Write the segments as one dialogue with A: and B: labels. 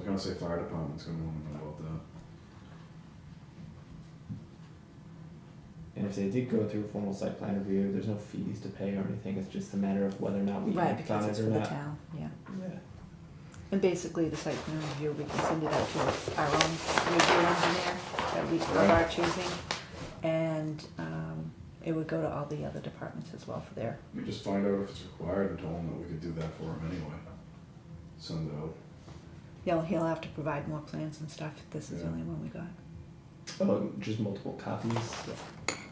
A: gonna say fire department's gonna wanna know about that.
B: And if they did go through a formal site plan review, there's no fees to pay or anything, it's just a matter of whether or not we
C: Right,
B: act on
C: because it's
B: it
C: for
B: or
C: the
B: not.
C: town, yeah.
B: Yeah.
C: And basically, the site plan review, we can send it out to our own review engineer that we, of our choosing. And, um, it would go to all the other departments as well for their,
A: We just find out if it's required and tell them that we could do that for them anyway. Send it out.
C: you know, he'll have to provide more plans and stuff, this is the
A: Yeah.
C: only one we got.
B: Oh, just multiple copies,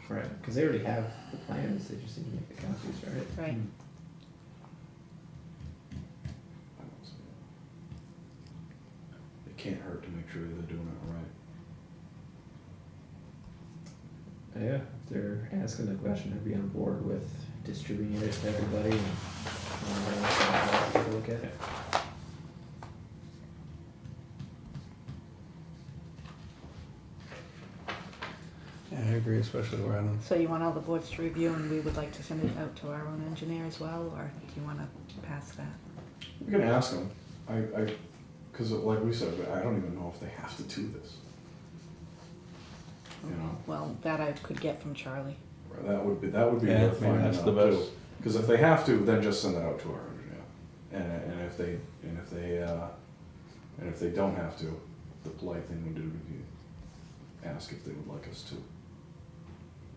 B: right, because they already have the plans, they just need to make the copies, right?
C: Right.
A: I don't see it. It can't hurt to make sure they're doing it right.
B: Yeah, if they're asking the question, I'd be on board with distributing it to everybody and. um, and, uh, take a Look at it.
D: Yeah, I agree, especially where I don't.
C: So you want all the boards to review and we would like to send it out to our own engineer as well, or do you wanna pass that?
A: We can ask them. I, I, because like we said, I don't even know if they have to do this. You know,
C: Well, that I could get from Charlie.
A: or that would be that would be
D: Yeah,
A: worth
D: I mean,
A: finding
D: that's the
A: out
D: best.
A: Because if they have to, then just send it out to our engineer. And, and if they and if they uh, and if they don't have to, the polite thing would do would be ask if they would like us to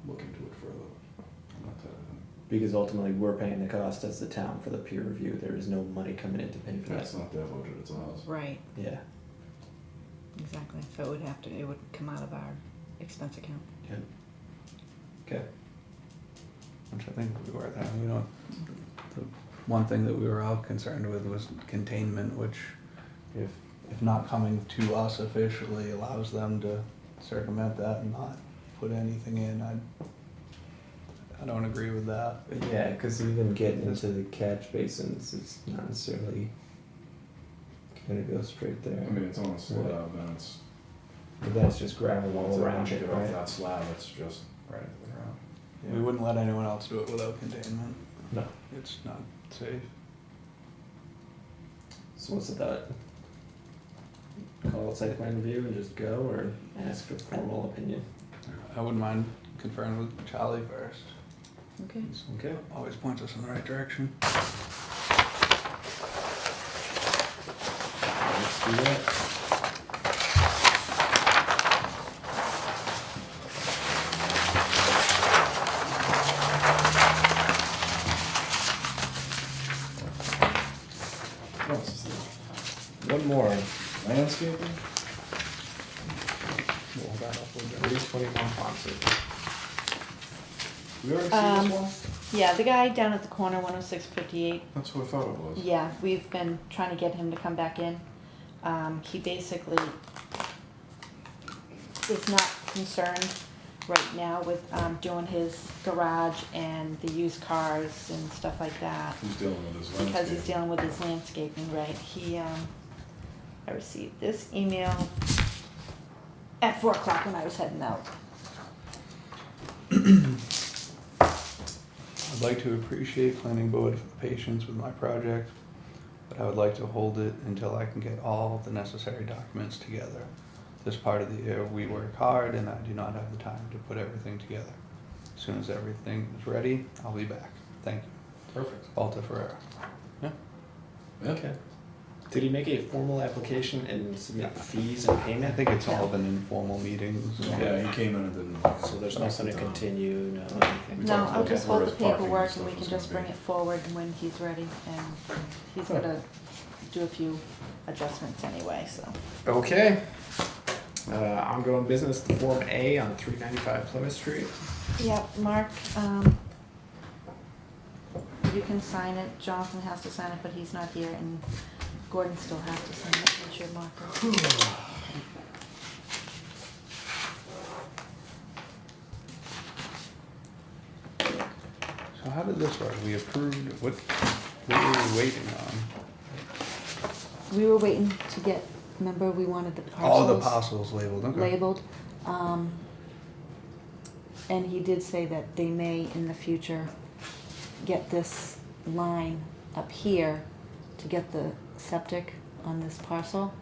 A: look into it further. I'm not telling them.
B: Because ultimately, we're paying the cost as the town for the peer review, there is no money coming in to pay for that,
A: That's not their budget; it's ours.
C: Right,
B: yeah.
C: exactly, so it would have to, it would come out of our expense account.
D: which I think would be worth having. You know, the one thing that we were all concerned with was containment, which, if if not coming to us officially, allows them to circumvent that and not put anything in. I I don't agree with that.
B: Yeah, because even getting into the catch basins, it's not necessarily gonna go straight there.
A: I mean, it's on a slab, and it's
B: But that's just gravel
A: once
B: all
A: it-
B: around
A: once you
B: it,
A: get off
B: right?
A: that slab, it's just right into the ground.
D: We wouldn't let anyone else do it without containment.
B: No.
D: It's not safe.
B: So what's the thought? Call it site plan review and just go, or ask for formal opinion?
D: I wouldn't mind conferring with Charlie first.
C: Okay.
B: Okay.
D: Always points us in the right direction.
B: Let's do that.
A: What else is there?
B: One more,
A: Landscaping?
D: We'll hold that up a little bit.
B: three twenty-one Ponce.
A: We already
C: Um,
A: seen this one?
C: Yeah, the guy down at the corner, one oh six fifty-eight,
A: That's who I thought it was.
C: yeah, we've been trying to get him to come back in. Um, he basically is not concerned right now with, um, doing his garage and the used cars and stuff like that.
A: Who's dealing with this landscaping?
C: because he's dealing with his landscaping, right, he, um, I received this email at four o'clock when I was heading out.
D: I'd like to appreciate planning board for the patience with my project, but I would like to hold it until I can get all the necessary documents together. This part of the year, we work hard and I do not have the time to put everything together. As soon as everything is ready, I'll be back. Thank you.
A: Perfect.
D: Alta Ferrera.
A: Yeah.
B: Okay. Did he make a formal application and submit
D: Yeah.
B: fees and
D: I
B: payment?
D: think it's all been informal meetings.
A: Yeah, he came in and didn't.
B: So there's nothing to
A: Down.
B: continue, no anything?
A: We
C: No,
A: talked
C: I'll
A: about
C: just
A: where
C: hold the
A: his parking
C: paperwork
A: stuff
C: and we can
A: was
C: just
A: gonna
C: bring
A: be.
C: it forward when he's ready, and he's
A: Right.
C: gonna do a few adjustments anyway, so.
B: Okay. Uh, ongoing business, Form A on three ninety-five Plymouth Street.
C: Yep, Mark, um, you can sign it, Jonathan has to sign it, but he's not here, and Gordon still has to sign it, it's your marker.
D: So how did this work? We approved, what, what were we waiting on?
C: We were waiting to get, remember, we wanted the parcels.
D: All the parcels labeled, okay.
C: labeled. Um, and he did say that they may in the future get this line up here to get the septic on this parcel.